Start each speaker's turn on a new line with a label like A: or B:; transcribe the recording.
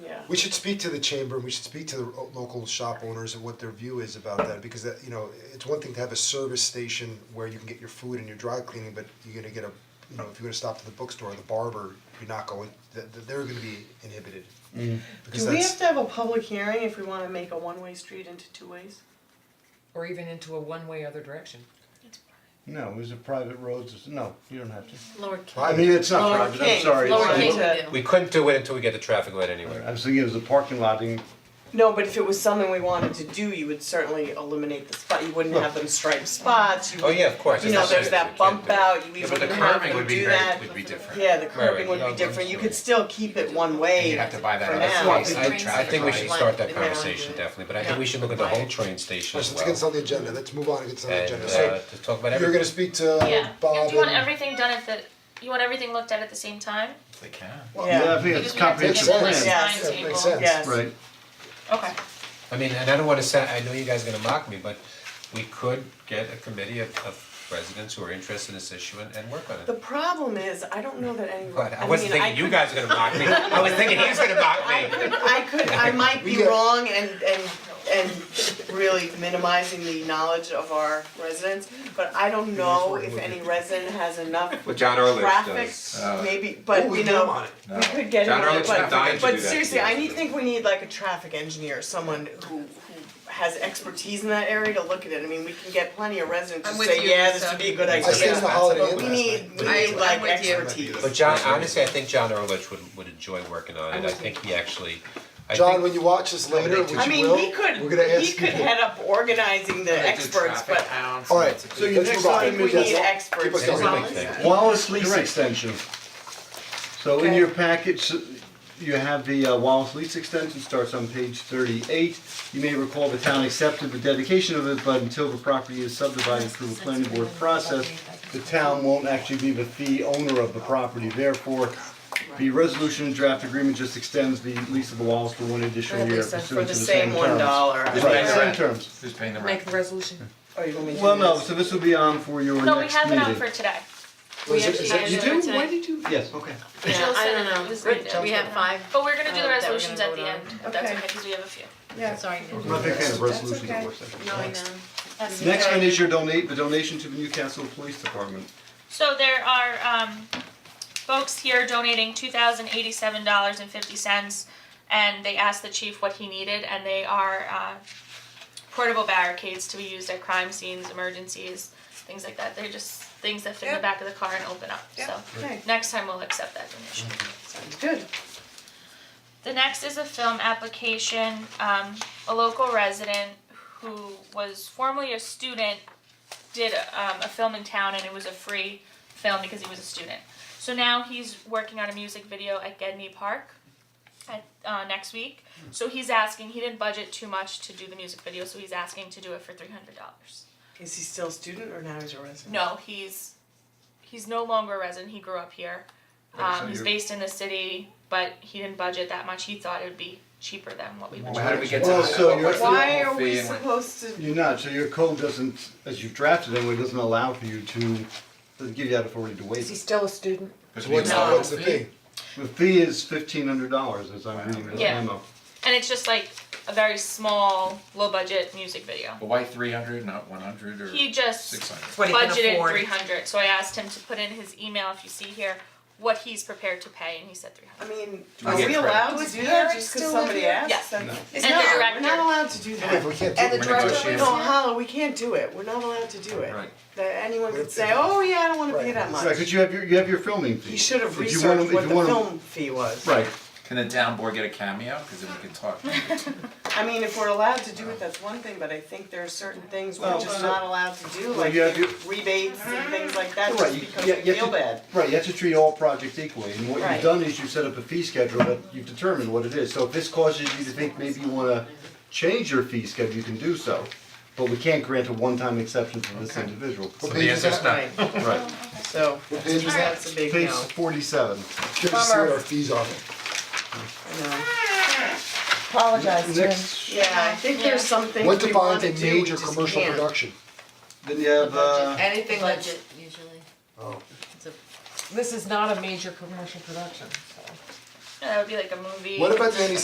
A: we should speak to the chamber, and we should speak to the o- local shop owners and what their view is about that, because that, you know, it's one thing to have a service station where you can get your food and your dry cleaning, but you're gonna get a, you know, if you're gonna stop at the bookstore or the barber, you're not going, th- th- they're gonna be inhibited. Because
B: Do we have
A: that's,
B: to have a public hearing if we wanna make a one-way street into two ways?
C: or even into a one-way other direction.
D: No, it was a private road, no, you don't have to.
E: Lower
D: I mean, it's not
B: Lower
D: private, I'm
B: King,
D: sorry. it's-
B: Lower
E: Lower
B: King
E: King
B: to-
E: Hill.
F: We couldn't do it until we get the traffic light anyway.
D: I was thinking it was a parking lot in,
B: No, but if it was something we wanted to do, you would certainly eliminate the spot, you wouldn't have them stripe spots, you
F: Oh,
B: would,
F: yeah, of course.
B: you
F: it's
B: know,
F: not
B: there's
F: serious,
B: that
F: we can't
B: bump
F: do it.
B: out, you
G: Yeah,
B: even
G: but the
B: wouldn't have
G: curving
B: them
G: would be
B: do
G: very,
B: that.
G: would be different.
B: Yeah, the
F: right,
B: curbing would
F: yeah,
B: be
F: of
B: different,
F: course,
B: you
F: yeah.
B: could still keep it one way
G: You'd have to buy that
B: for
G: other
B: now.
G: slice.
F: I, I
E: Train
F: think we should
E: station.
F: start that
E: Yeah.
F: conversation definitely, but I think we should look at the whole train station as
A: let's
F: well.
A: get this on the agenda, let's move on and get this on the agenda,
F: And uh,
A: so,
F: to talk about
A: you're gonna
F: everything.
A: speak to
E: Yeah,
A: Bob
H: Do you want
A: and-
H: everything done at the, you want everything looked at at the same time?
G: They can.
D: yeah, I think it's
H: Because we have
D: comprehensive
H: to get the
D: plan,
B: plan. Yeah.
A: That
H: timetable.
A: makes sense.
B: Yes.
D: right?
H: Okay.
F: I mean, and I don't wanna sound, I know you guys are gonna mock me, but we could get a committee of, of residents who are interested in this issue and, and work on
B: The
F: it.
B: problem is, I don't know that any,
F: But I
B: I
F: wasn't
B: mean, I
F: thinking you
B: could,
F: guys were gonna mock me, I was thinking he's gonna mock me.
B: I could, I might
A: We
B: be
A: get-
B: wrong and and and really minimizing the knowledge of our residents, but I don't know if any resident has enough
I: Well, John Ehrlich
B: traffic,
I: does. Uh,
B: maybe,
A: Oh,
B: but
A: we
B: you
A: get 'em
B: know,
A: on it.
B: we could get him
I: John
B: on it,
I: Ehrlich's been dying
B: but
I: to
B: but
I: do that,
B: seriously,
I: yes.
B: I need, think we need like a traffic engineer, someone who who has expertise in that area to look at it, I mean, we can get plenty of residents
E: I'm
B: to
E: with
B: say,
E: you,
B: yeah, this
E: Lisa.
B: would be a good
A: I
B: idea.
A: stayed in the Holiday Inn
B: But we
A: last
B: need,
A: night.
B: we
E: I-
B: need like
E: I'm with you.
B: expertise.
F: But John, honestly, I think John Erlich would would enjoy working on it, I think he actually, I
A: John,
F: think,
A: when you watch this later, which you will,
B: I mean, he could,
A: we're gonna ask
B: he could
A: you.
B: head up organizing the experts, but
A: All right,
D: So your
A: Let's
D: next
A: move on.
D: item
B: we
D: is.
B: need
A: Yes.
B: experts.
A: Keep us
F: It's a
A: going.
F: big thing.
D: Wallace lease extension. So in your package, uh, you have the uh, Wallace lease extension, starts on page thirty-eight. You may recall the town accepted the dedication of it, but until the property is subdivided through the planning board process, the town won't actually be the fee owner of the property, therefore, the resolution and draft agreement just extends the lease of the Wallace for one additional year
C: Lisa, for
D: pursuant
B: For
D: to
B: the same
D: the same terms.
B: one dollar.
D: Right,
G: Right.
D: same terms.
G: Who's paying the
C: Make
G: rent?
C: the resolution.
B: Oh, you want me to
D: Well,
B: do
D: no,
B: this?
D: so this will be on for your next meeting.
H: No, we have it on for today.
A: Is it- is
E: actually
A: it-
E: have
D: You
E: it
D: do?
E: today.
D: Why did you? Yes, okay.
E: Yeah,
H: Jill
E: I
H: said
E: don't
H: it,
E: know.
H: it was right there.
E: We have five.
H: But we're gonna do
E: Uh,
H: the
E: that we're gonna
H: resolutions at
E: vote
H: the
E: on.
H: end, if that's
B: Okay.
H: okay, cause we have a few.
E: Sorry.
D: I'm not a big fan of resolutions at work sessions.
E: No, I know.
D: Next one is your donate, the donation to the Newcastle Police Department.
H: So there are um folks here donating two thousand eighty seven dollars and fifty cents and they asked the chief what he needed and they are uh portable barricades to be used at crime scenes, emergencies, things like that. They're just things that fit in
B: Yeah.
H: the back of the car and open up, so
B: Okay,
H: next time we'll accept that donation.
B: sounds good.
H: The next is a film application, um, a local resident who was formerly a student did um, a film in town and it was a free film because he was a student. So now he's working on a music video at Gedney Park at, uh, next week. So he's asking, he didn't budget too much to do the music video, so he's asking to do it for three hundred dollars.
B: Is he still a student or now he's a resident?
H: No, he's he's no longer a resident. He grew up here. Um,
D: so
H: he's
D: you're-
H: based in the city, but he didn't budget that much. He thought it would be cheaper than what we would.
G: Well, how do we get to
D: Well,
G: that?
D: so you're-
G: What's the
B: Why
G: whole
B: are
G: fee
B: we
G: and what-
B: supposed to,
D: You're not, so your code doesn't, as you've drafted it, it doesn't allow for you to, doesn't give you that authority to
C: Is he
D: waive.
C: still a student?
G: What's
A: What's the,
B: No.
A: what's the fee?
D: The fee is fifteen hundred dollars, as I'm reading the
H: Yeah.
D: memo.
H: And it's just like a very small, low budget music video.
G: But why three hundred, not one hundred or
H: He just
G: six hundred?
C: What he can
E: oh
H: budgeted
C: afford.
H: three hundred. So I asked him to put in his email, if you see here, what he's prepared to pay, and he said three
B: I
H: hundred.
B: mean,
G: Do we
B: are
G: get
B: we
G: credit?
B: allowed
C: Do
B: to
C: his
B: do that
C: parents
B: just cause
C: still live
B: somebody
C: here?
H: Yes.
B: asks? Yes.
C: Is
H: And the
C: not.
B: We're
H: director.
B: not allowed to do
A: If we
B: that.
A: can't do it,
C: And the
G: We're
C: director
G: negotiating.
C: lives
B: No,
C: here?
B: Hala, we can't do it. We're not allowed to do it.
G: Right.
B: That anyone could say, oh yeah, I don't wanna pay that
D: Right,
B: much.
D: cause you have your, you have your filming fee.
B: He should have
D: If you wanna-
B: researched what
D: if
B: the
D: you wanna-
B: film fee was.
D: Right,
G: Can the town board get a cameo? Cause then we can talk.
B: I mean, if we're allowed to do it, that's one thing, but I think there are certain things we're
D: Well,
B: just
D: no, no.
B: not allowed to do,
D: Well,
B: like
D: you have your-
B: rebates and things like that,
D: right,
B: just
D: you,
B: because
D: you
B: we
D: have to.
B: feel bad.
D: Right, you have to treat all projects equally, and what
B: Right.
D: you've done is you've set up a fee schedule that you've determined what it is, so if this causes you to think maybe you wanna change your fee schedule, you can do so, but we can't grant a one-time exception for this individual.
A: What
G: So
A: page
G: the
A: is
G: answer's
A: that?
G: no.
B: Right,
D: Right,
B: so,
A: page is that?
B: that's a big
D: page
B: no,
D: forty-seven.
A: Should have seen what our fees are.
B: I know.
C: Apologize, Jim.
D: Next,
B: Yeah, I think there's some things
A: What
B: we wanna
A: defines a
B: do, we
A: major
B: just
A: commercial
B: can't.
A: production?
D: then you have, uh,
C: Anything that's-
E: Budget usually.
A: Oh.
E: It's a
C: this is not a major commercial production, so.
H: That would be like a movie.
A: What about the any